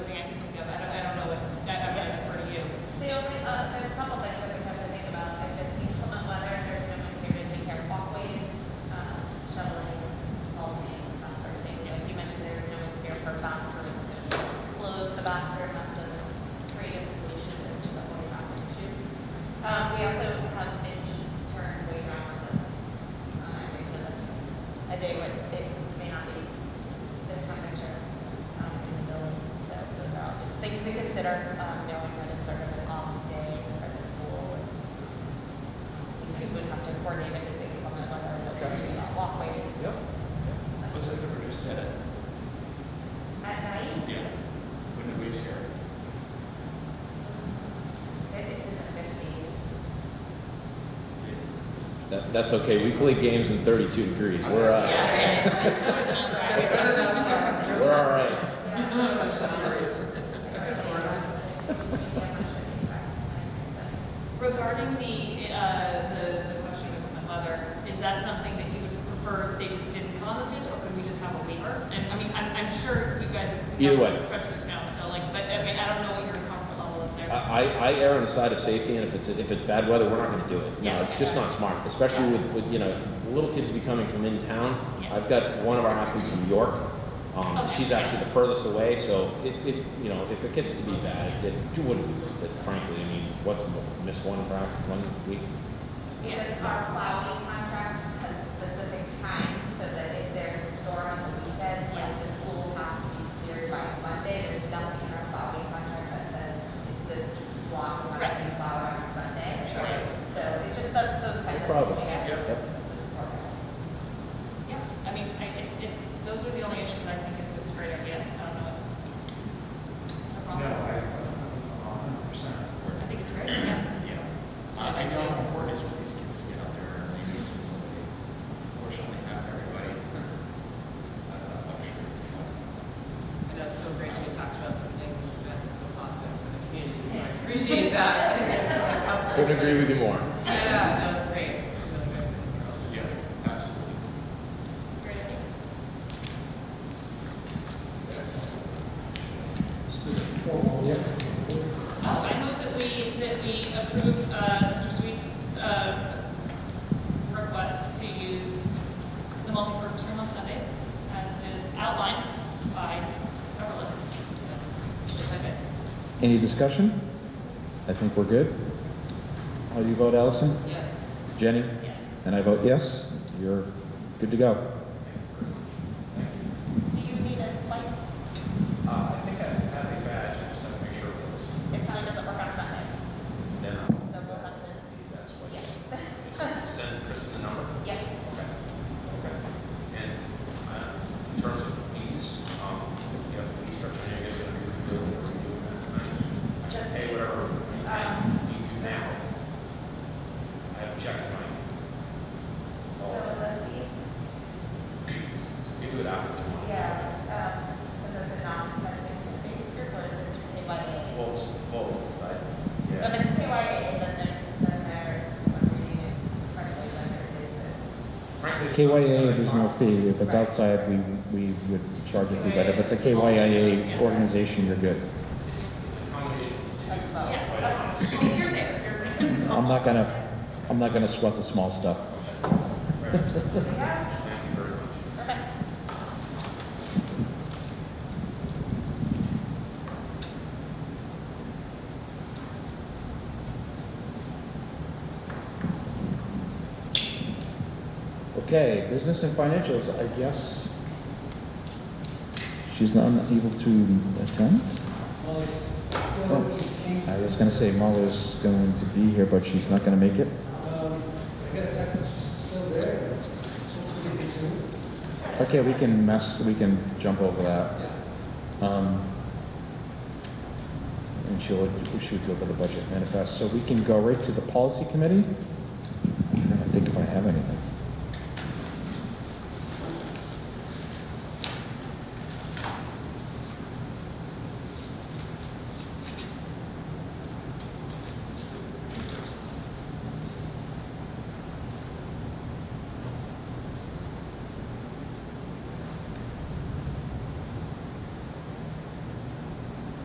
um, the last three months of creating a solution to the whole traffic issue. Um, we also have an e-turn way around the, um, every so that's a day when it may not be this temperature, um, in the building. So those are all just things to consider, um, knowing that it's sort of an off day for the school. and You would have to coordinate if it's inclement weather, whether it's about walkways. Yep. What's the number just said it? At night, Yeah. When nobody's here. if it's in the fifties. That, that's okay. We play games in 32 degrees. We're, uh, we're all right. Regarding the, uh, the, the question with my mother, is that something that you would prefer they just didn't call those names, or could we just have a waiver? And, I mean, I'm, I'm sure you guys. Either way. Treacherous now, so like, but, I mean, I don't know what your comfort level is there. I, I- I err on the side of safety, and if it's, if it's bad weather, we're not gonna do it. No, it's just not smart, especially with, with, you know, little kids be coming from in town. Yeah. I've got one of our athletes from York, um, Okay. she's actually the furthest away, so it, it, you know, if it gets to be bad, it, it wouldn't, be- it- frankly, I mean, what, miss one practice, one week? Because our plowing contracts has specific times, so that if there's a storm on the weekend, like the school has to be cleared by Monday, there's nothing in our plowing contract that says the block will not be Right. plowed on Sunday. Sure. Like, So it's just those, those kinds of. problem. things. Yep. Yep. Yeah, I mean, I, if, if those are the only issues, I think it's a great idea, I don't know. No No, I, problem. hundred percent. I think it's great, yeah. Yeah. Uh, I know how important it is for these kids to get out there and maybe it's just like, fortunately, not everybody. That's not luxury. And that's so great we talked about something that's so positive for the community, so I appreciate that. Couldn't agree with you more. Yeah, no, it's great. It's really great for the girls. Yeah, absolutely. It's a great idea. Oh, I move that we, that we approve uh, Mr. Sweet's uh, request to use the multipurpose room on Sundays as is outlined by Ms. Overland. Is that good? Any discussion? I think we're good. How do you vote, Allison? Yes. Jenny? Yes. And I vote yes. You're good to go. Do you need a swipe? Uh, I think I have a badge, I just have to make sure it was. It probably doesn't work on Sunday, Then I'll so we'll have to, need that switch. yeah, Just Send Kristen the number. yeah. Okay, okay. And uh, in terms of fees, um, you have police attorney, I guess, going to be reviewing or reviewing that tonight. Hey, whatever we can, we do now. I have checked my, So oh, the fees we do it after tomorrow. Yeah, um, because it's a non-competitive community group, or is it PYA? Well, it's both, but, If yeah. it's PYA, then there's, then there, I'm reading it correctly, then there is a. Frankly, it's not- KYA, there's no fee. If it's outside, we, we would charge a fee, but if it's a KYA organization, you're good. It's a combination of two. Oh. Quite Yeah, honest. okay. you're there, you're there. I'm not gonna, I'm not gonna sweat the small stuff. Yeah, Thank you very much. perfect. Okay, business and financials, I guess. She's not able to attend? Oh, I was gonna say Molly's going to be here, but she's not gonna make it. Okay, we can mess, we can jump over that. Um, And she'll, she'll go over the budget manifest, so we can go right to the policy committee.